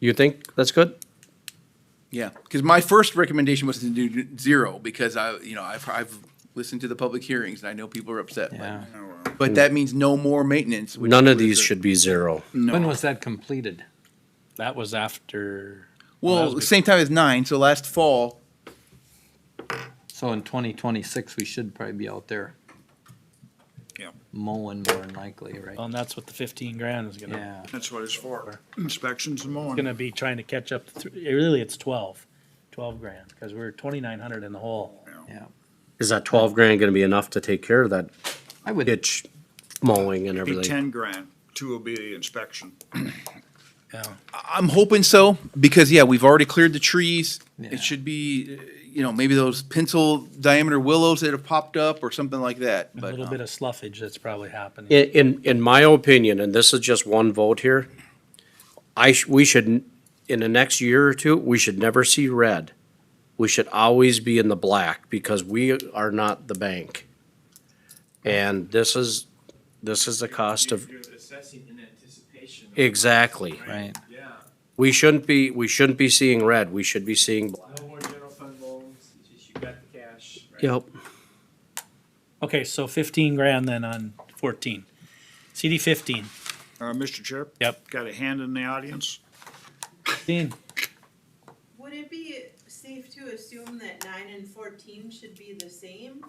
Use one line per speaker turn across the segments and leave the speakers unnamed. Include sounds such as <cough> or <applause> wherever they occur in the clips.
You think that's good?
Yeah, because my first recommendation was to do zero, because I, you know, I've, I've listened to the public hearings, and I know people are upset. but-
Yeah.
But that means no more maintenance. which
None of
was
these
a-
should be zero.
When was that completed? That was after,
Well, same time as nine, so last fall,
so in twenty twenty-six, we should probably be out there.
Yeah.
Mowing more than likely,
Well,
right?
and that's what the fifteen grand is gonna,
Yeah,
That's what it's for, inspections and mowing.
gonna be trying to catch up, to thr- eh, really, it's twelve, twelve grand, because we're twenty-nine hundred in the hole.
yeah.
Is that twelve grand gonna be enough to take care of that
I would,
ditch mowing and
Be
everything?
ten grand, two will be the inspection.
I'm hoping so, because, yeah, we've already cleared the trees.
Yeah.
It should be, uh, you know, maybe those pencil diameter willows that have popped up or something like that,
A
but.
little
um,
bit of sluffage that's probably happening.
In, in, in my opinion, and this is just one vote here, I, sh- we should, n- in the next year or two, we should never see red. We should always be in the black because we are not the bank. And this is, this is the cost of,
You're assessing in anticipation. of-
exactly.
right,
Yeah,
We shouldn't be, we shouldn't be seeing red, we should be seeing black.
no more general fund loans, it's just you got the cash. right?
Yep.
Okay, so fifteen grand then on fourteen. CD fifteen.
Uh, Mr. Chair?
Yep.
Got a hand in the audience?
Dean,
Would it be safe to assume that nine and fourteen should be the same?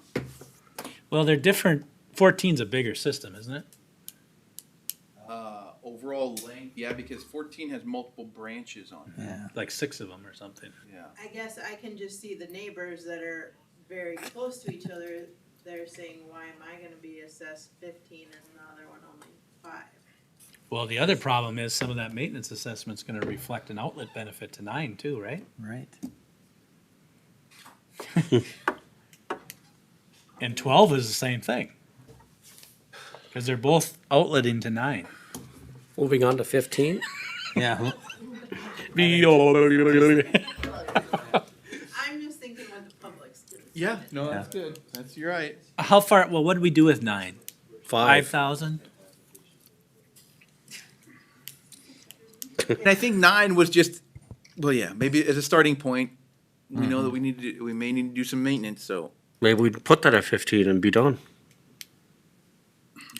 well, they're different, fourteen's a bigger system, isn't it?
Uh, overall length, yeah, because fourteen has multiple branches on it,
yeah.
Like six of them or something.
yeah.
I guess I can just see the neighbors that are very close to each other, they're saying, why am I gonna be assessed fifteen and the other one only five?
Well, the other problem is some of that maintenance assessment's gonna reflect an outlet benefit to nine too, right?
Right.
And twelve is the same thing. Cause they're both outlet into nine.
Moving on to fifteen?
Yeah,
I'm just thinking what the public's doing.
Yeah, no, that's good, that's, you're right.
How far, well, what did we do with nine? Five
Five.
thousand?
And I think nine was just, well, yeah, maybe as a starting point, we know that we need to, we may need to do some maintenance, so.
Maybe we'd put that at fifteen and be done.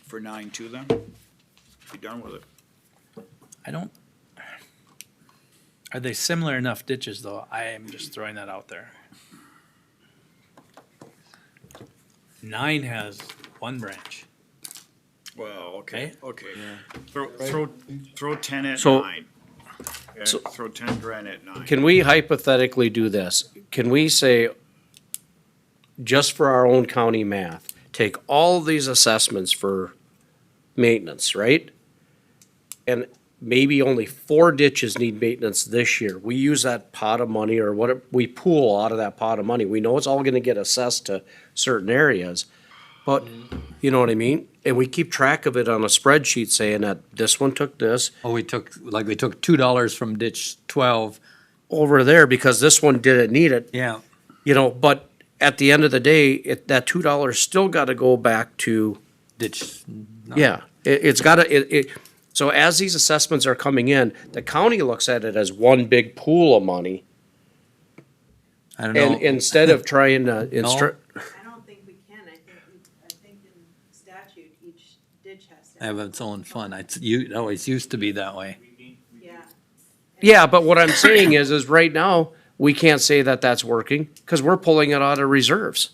For nine two then? Be done with it.
I don't. Are they similar enough ditches though? I am just throwing that out there. Nine has one branch.
Well, okay, okay.
Yeah.
Throw, throw, throw ten at
So-
nine. Yeah,
so-
Throw ten grand at nine.
Can we hypothetically do this? Can we say, just for our own county math, take all these assessments for maintenance, right? And maybe only four ditches need maintenance this year. We use that pot of money or what, we pool out of that pot of money. We know it's all gonna get assessed to certain areas. But, you know what I mean? And we keep track of it on a spreadsheet saying that this one took this,
oh, we took, like, we took two dollars from ditch twelve.
over there because this one didn't need it.
Yeah.
you know, but at the end of the day, it, that two dollars still got to go back to,
Ditch.
yeah, it, it's got to, it, it, so as these assessments are coming in, the county looks at it as one big pool of money.
I don't
And
know,
instead of trying
<laughs>
to instruct,
I don't think we can, I think, we- I think in statute, each ditch has to.
have its own fun. It's, you, it always used to be that way.
Yeah.
yeah, but what I'm saying is, is right now, we can't say that that's working because we're pulling it out of reserves.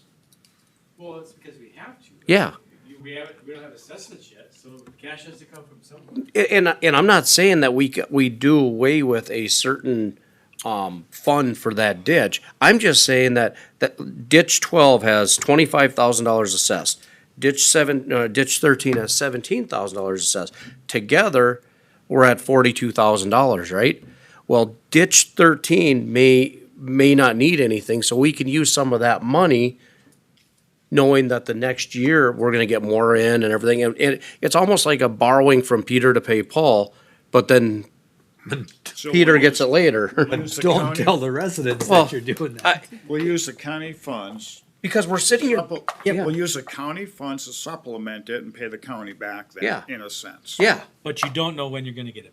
Well, it's because we have to.
Yeah.
You- We haven't, we don't have assessments yet, so the cash has to come from somewhere.
A- And, and I'm not saying that we, c- we do away with a certain, um, fund for that ditch. I'm just saying that, that ditch twelve has twenty-five thousand dollars assessed. Ditch seven, uh, ditch thirteen has seventeen thousand dollars assessed. Together, we're at forty-two thousand dollars, right? Well, ditch thirteen may, may not need anything, so we can use some of that money knowing that the next year we're gonna get more in and everything. And, and it's almost like a borrowing from Peter to pay Paul, but then
So
Peter
we'll
gets
use-
it later. <laughs>
we'll use the
Don't
county-
tell the residents
Well,
that you're doing that.
I-
We'll use the county funds.
Because we're sitting here,
supple-
yeah.
We'll use the county funds to supplement it and pay the county back
Yeah.
that, in a sense.
yeah,
But you don't know when you're gonna get it